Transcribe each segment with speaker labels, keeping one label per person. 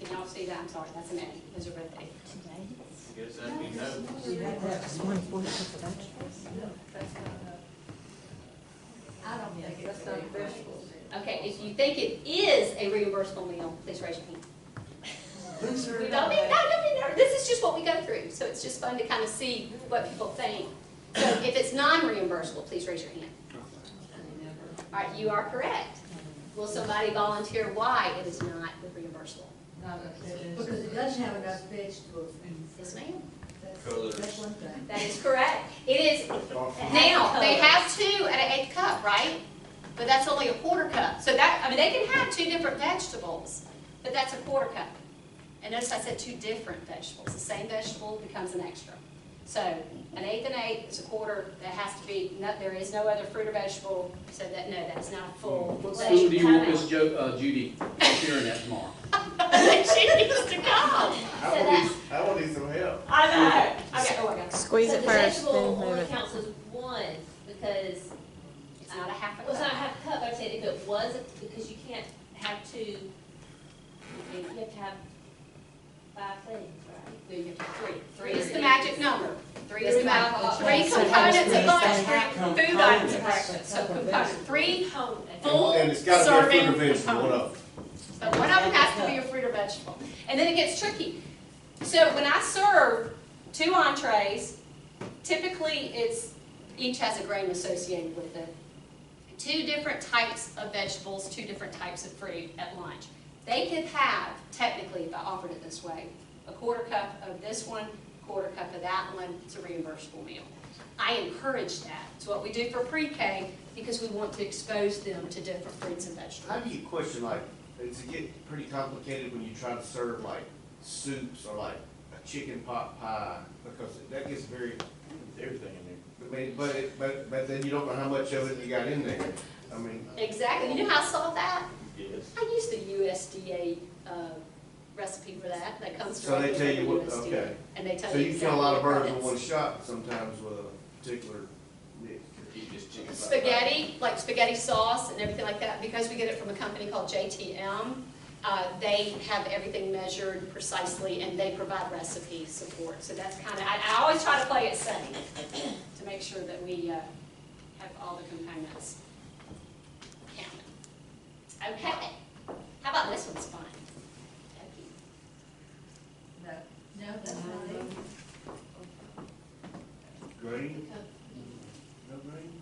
Speaker 1: I'm sorry, that's an A, is a red A.
Speaker 2: Guess that'd be no.
Speaker 3: I don't think it's
Speaker 4: That's not
Speaker 3: reimbursable.
Speaker 1: Okay, if you think it is a reimbursable meal, please raise your hand.
Speaker 3: Loser.
Speaker 1: We don't need, no, no, no, no, this is just what we go through, so it's just fun to kind of see what people think. So if it's non-reimbursable, please raise your hand. All right, you are correct. Will somebody volunteer why it is not reimbursable?
Speaker 3: Not if it is.
Speaker 4: Because it doesn't have enough vegetables and.
Speaker 1: Yes, ma'am.
Speaker 4: That's,
Speaker 2: Colours.
Speaker 4: that's one thing.
Speaker 1: That is correct. It is, now, they have two at an eighth cup, right? But that's only a quarter cup. So that, I mean, they can have two different vegetables, but that's a quarter cup. And notice I said two different vegetables. The same vegetable becomes an extra. So an eighth and eighth is a quarter. That has to be, no, there is no other fruit or vegetable, so that, no, that's not a full.
Speaker 5: What
Speaker 1: that
Speaker 5: school
Speaker 1: should
Speaker 5: do you
Speaker 1: come
Speaker 5: want
Speaker 1: out.
Speaker 5: Miss Jo, uh, Judy appearing at tomorrow?
Speaker 1: She needs to come.
Speaker 2: I would need, I would need some help.
Speaker 1: I know. Okay, oh my gosh.
Speaker 6: Squeeze it first,
Speaker 3: So the
Speaker 6: then
Speaker 3: vegetable
Speaker 6: move
Speaker 3: only
Speaker 6: it.
Speaker 3: counts as one, because,
Speaker 1: It's not a half a
Speaker 3: well, it's not
Speaker 1: cup.
Speaker 3: half cup, I said if it was, because you can't have two, you have to have five things, right?
Speaker 1: Then you have to three. Three
Speaker 3: Three.
Speaker 1: is the magic number. Three is the
Speaker 3: Three
Speaker 1: magic,
Speaker 3: components.
Speaker 1: three
Speaker 3: So
Speaker 1: components of lunch,
Speaker 4: that's
Speaker 1: three food items of breakfast. So component, three full
Speaker 2: And it's gotta be a
Speaker 1: serving
Speaker 2: fruit or vegetable, one
Speaker 1: components.
Speaker 2: of them.
Speaker 1: So one of them has to be a fruit or vegetable. And then it gets tricky. So when I serve two entrees, typically it's, each has a grain associated with it. Two different types of vegetables, two different types of fruit at lunch. They could have, technically, if I offered it this way, a quarter cup of this one, quarter cup of that one, it's a reimbursable meal. I encourage that. It's what we do for pre-K because we want to expose them to different fruits and vegetables.
Speaker 2: How do you question like, does it get pretty complicated when you try to serve like soups or like a chicken pot pie? Because that gets very. Everything in there. But, but it, but, but then you don't know how much of it you got in there. I mean.
Speaker 1: Exactly. You know how I saw that?
Speaker 2: Yes.
Speaker 1: I used the USDA uh, recipe for that. That comes
Speaker 2: So they
Speaker 1: directly
Speaker 2: tell
Speaker 1: from
Speaker 2: you what-
Speaker 1: the USDA.
Speaker 2: okay.
Speaker 1: And they tell
Speaker 2: So
Speaker 1: you.
Speaker 2: you kill a lot of birds
Speaker 1: exactly
Speaker 2: with
Speaker 1: what
Speaker 2: one
Speaker 1: it
Speaker 2: shot sometimes with a particular mix.
Speaker 1: is. Spaghetti, like spaghetti sauce and everything like that, because we get it from a company called JTM. Uh, they have everything measured precisely and they provide recipe support. So that's kind of, I, I always try to play it safe to make sure that we uh, have all the components counted. Okay, how about this one's fun? Okay.
Speaker 4: No, no, that's not it.
Speaker 2: Green? No green?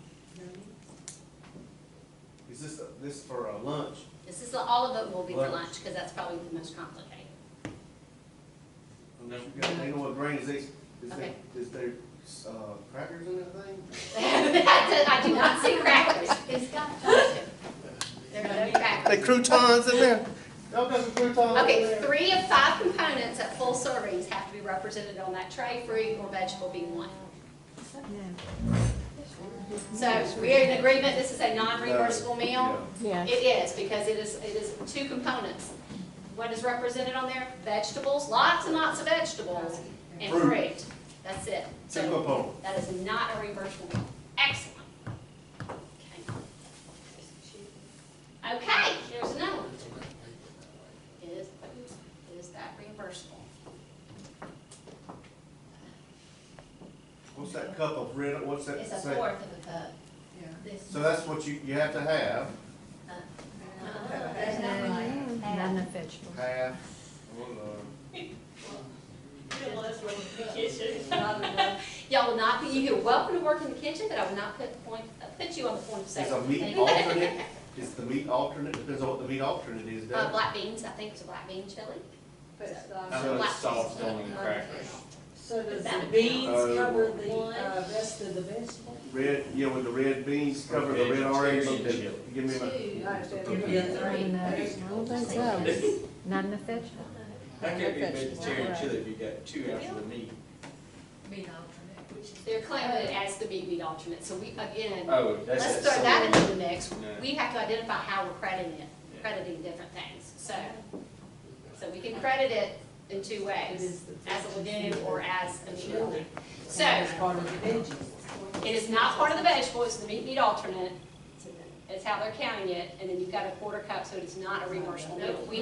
Speaker 2: Is this, this for a lunch?
Speaker 1: This is, all of it will be for
Speaker 2: Lunch.
Speaker 1: lunch, because that's probably the most complicated.
Speaker 2: Unless you got, they know what grain is, they- is
Speaker 1: Okay.
Speaker 2: that, is there, uh, crackers in that thing?
Speaker 1: I do not see crackers. It's got to. There are no crackers.
Speaker 2: croutons in there? Y'all got some croutons in
Speaker 1: Okay,
Speaker 2: there?
Speaker 1: three of five components at full servings have to be represented on that tray, fruit or vegetable being one. So we are in agreement, this is a non-reimbursable meal?
Speaker 2: Yeah.
Speaker 6: Yeah.
Speaker 1: It is, because it is, it is two components. What is represented on there? Vegetables, lots and lots of vegetables,
Speaker 4: Um,
Speaker 1: and
Speaker 2: Fruit.
Speaker 1: fruit. That's it.
Speaker 2: Two
Speaker 1: So-
Speaker 2: components.
Speaker 1: That is not a reimbursable. Excellent. Okay. Okay, here's another one. Is, is that reimbursable?
Speaker 2: What's that cup of red, what's that
Speaker 3: It's a
Speaker 2: say?
Speaker 3: fourth of a cup,
Speaker 4: Yeah.
Speaker 3: this.
Speaker 2: So that's what you, you have to have,
Speaker 3: Uh-uh,
Speaker 4: That's not right.
Speaker 3: half.
Speaker 2: half, one, uh,
Speaker 3: Not enough.
Speaker 1: Y'all will not be, you're welcome to work in the kitchen, but I will not put point, uh, put you on the point of
Speaker 2: is a
Speaker 1: sale.
Speaker 2: meat alternate, is the meat alternate, depends on what the meat alternate is,
Speaker 1: Uh,
Speaker 2: doesn't it?
Speaker 1: black beans, I think it's a black bean chili.
Speaker 4: But it's not-
Speaker 1: How much sauce
Speaker 3: on the crackers?
Speaker 4: So does the
Speaker 1: That-
Speaker 4: beans
Speaker 2: Oh.
Speaker 4: cover the
Speaker 3: One.
Speaker 4: uh, rest of the vegetables?
Speaker 2: Red, yeah, with the red beans covered, the red orange,
Speaker 5: Vegetarian.
Speaker 2: give me my.
Speaker 3: Two.
Speaker 4: Like that.
Speaker 3: Give me a three.
Speaker 6: don't think so. Not enough vegetables.
Speaker 7: That can't be
Speaker 6: Not enough
Speaker 7: vegetarian
Speaker 6: vegetables.
Speaker 7: chili if you got two after the meat.
Speaker 3: Meat alternate, which is-
Speaker 1: They're claiming it as the meat meat alternate, so we, again,
Speaker 2: Uh,
Speaker 7: Oh, that's
Speaker 1: let's
Speaker 7: that.
Speaker 1: throw that into the mix.
Speaker 7: Yeah.
Speaker 1: We have to identify how we're crediting it, crediting different things, so. So we can credit it in two ways, as a lagoon or as a meat alternate. So,
Speaker 4: And it's part of the veggies.
Speaker 1: it is not part of the vegetable, it's the meat meat alternate. It's how they're counting it, and then you've got a quarter cup, so it's not a reversible meal. We